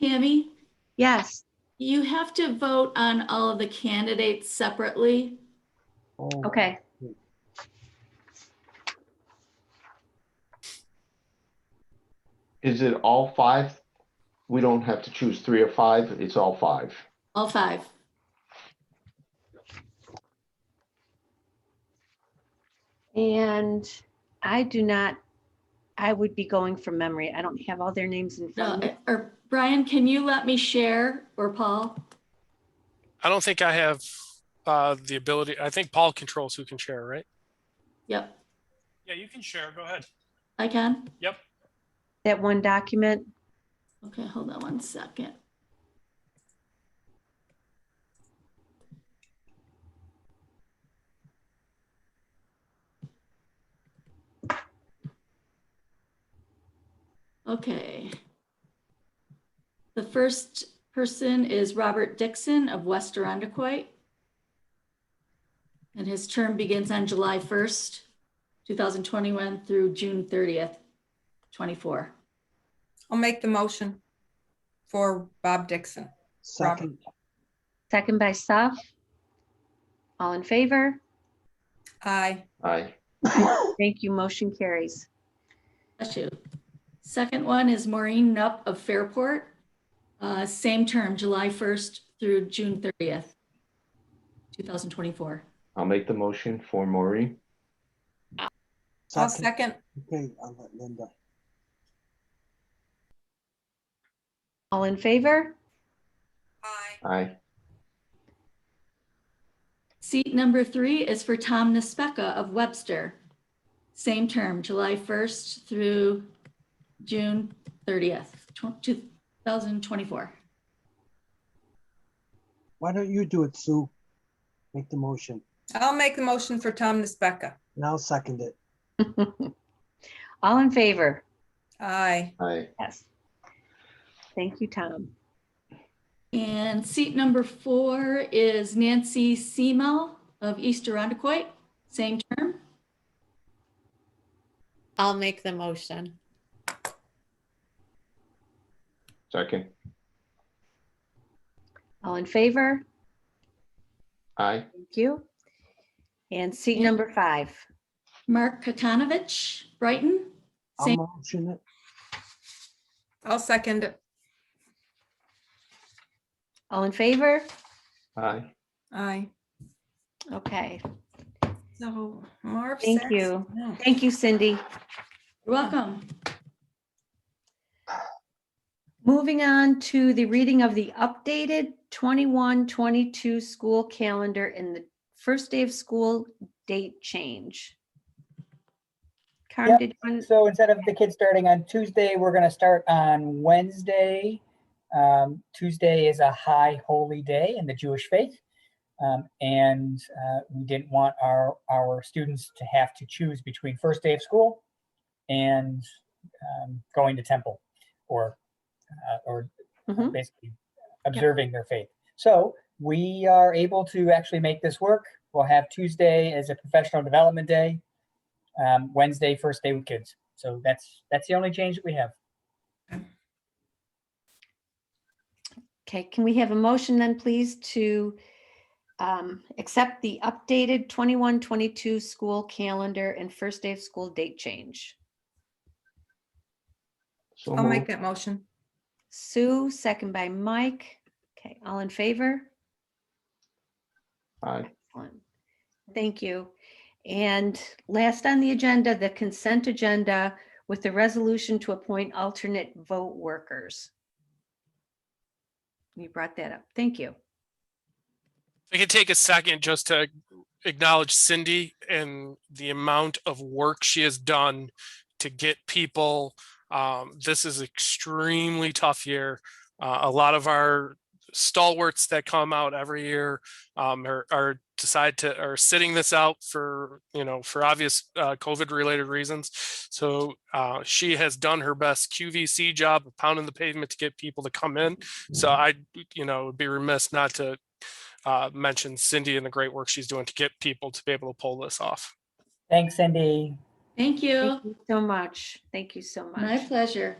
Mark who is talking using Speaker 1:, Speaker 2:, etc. Speaker 1: Tammy,
Speaker 2: Yes.
Speaker 1: you have to vote on all of the candidates separately.
Speaker 3: Oh,
Speaker 2: Okay.
Speaker 3: Is it all five? We don't have to choose three or five. It's all five.
Speaker 1: All five.
Speaker 2: And I do not, I would be going from memory. I don't have all their names in
Speaker 1: No,
Speaker 2: front of me.
Speaker 1: or Brian, can you let me share or Paul?
Speaker 4: I don't think I have uh, the ability. I think Paul controls who can share, right?
Speaker 1: Yep,
Speaker 5: Yeah, you can share. Go ahead.
Speaker 1: I can.
Speaker 2: That one document.
Speaker 1: Okay, hold on one second. Okay. The first person is Robert Dixon of West Arundecoyt. And his term begins on July 1st, 2021 through June 30th, 24.
Speaker 6: I'll make the motion for Bob Dixon.
Speaker 7: Second,
Speaker 2: Second by Saf. All in favor?
Speaker 6: Aye.
Speaker 3: Aye.
Speaker 2: Thank you. Motion carries.
Speaker 1: Bless you. Second one is Maureen Nupp of Fairport. Uh, Same term, July 1st through June 30th, 2024.
Speaker 3: I'll make the motion for Maureen.
Speaker 6: I'll
Speaker 7: second,
Speaker 6: second.
Speaker 7: okay, I'll let Linda.
Speaker 2: All in favor?
Speaker 6: Aye.
Speaker 3: Aye.
Speaker 1: Seat number three is for Tom Nespeka of Webster. Same term, July 1st through June 30th, tw- 2024.
Speaker 7: Why don't you do it, Sue? Make the motion,
Speaker 6: I'll make the motion for Tom Nisbecca.
Speaker 7: and I'll second it.
Speaker 2: All in favor?
Speaker 6: Aye.
Speaker 3: Aye.
Speaker 2: Yes. Thank you, Tom.
Speaker 1: And seat number four is Nancy Semel of East Arundecoyt. Same term.
Speaker 8: I'll make the motion.
Speaker 3: Second.
Speaker 2: All in favor?
Speaker 3: Aye.
Speaker 2: Thank you. And seat number five.
Speaker 1: Mark Kakanovich, Brighton.
Speaker 7: I'll
Speaker 1: Same.
Speaker 7: motion it.
Speaker 6: I'll second it.
Speaker 2: All in favor?
Speaker 3: Aye.
Speaker 6: Aye.
Speaker 2: Okay.
Speaker 6: So Marv.
Speaker 2: Thank
Speaker 6: Saxon,
Speaker 2: you.
Speaker 6: no.
Speaker 2: Thank you, Cindy.
Speaker 1: You're welcome.
Speaker 2: Moving on to the reading of the updated 21-22 school calendar and the first day of school date change. Karen,
Speaker 9: Yep.
Speaker 2: did you, want-
Speaker 9: So instead of the kids starting on Tuesday, we're gonna start on Wednesday. Um, Tuesday is a high holy day in the Jewish faith. Um, and, uh, we didn't want our, our students to have to choose between first day of school and, um, going to temple or, uh, or
Speaker 2: Mhm.
Speaker 9: basically observing their faith. So we are able to actually make this work. We'll have Tuesday as a professional development day um, Wednesday, first day with kids. So that's that's the only change that we have.
Speaker 2: okay, can we have a motion then, please, to um, accept the updated 21-22 school calendar and first day of school date change?
Speaker 3: So
Speaker 6: I'll make
Speaker 3: moved.
Speaker 6: that motion.
Speaker 2: Sue, second by Mike. Okay, all in favor?
Speaker 3: Aye.
Speaker 2: Excellent. Thank you. And last on the agenda, the consent agenda with the resolution to appoint alternate vote workers. You brought that up. Thank you.
Speaker 4: If I could take a second just to acknowledge Cindy and the amount of work she has done to get people. Um, this is extremely tough year. Uh, a lot of our stalwarts that come out every year um, are, are decide to are sitting this out for you know for obvious uh, COVID related reasons. So uh, she has done her best QVC job of pounding the pavement to get people to come in. So I you know would be remiss not to uh, mentioned Cindy and the great work she's doing to get people to be able to pull this off.
Speaker 9: Thanks, Cindy.
Speaker 1: Thank you.
Speaker 2: Thank you So much. Thank you so
Speaker 1: My
Speaker 2: much.
Speaker 1: pleasure.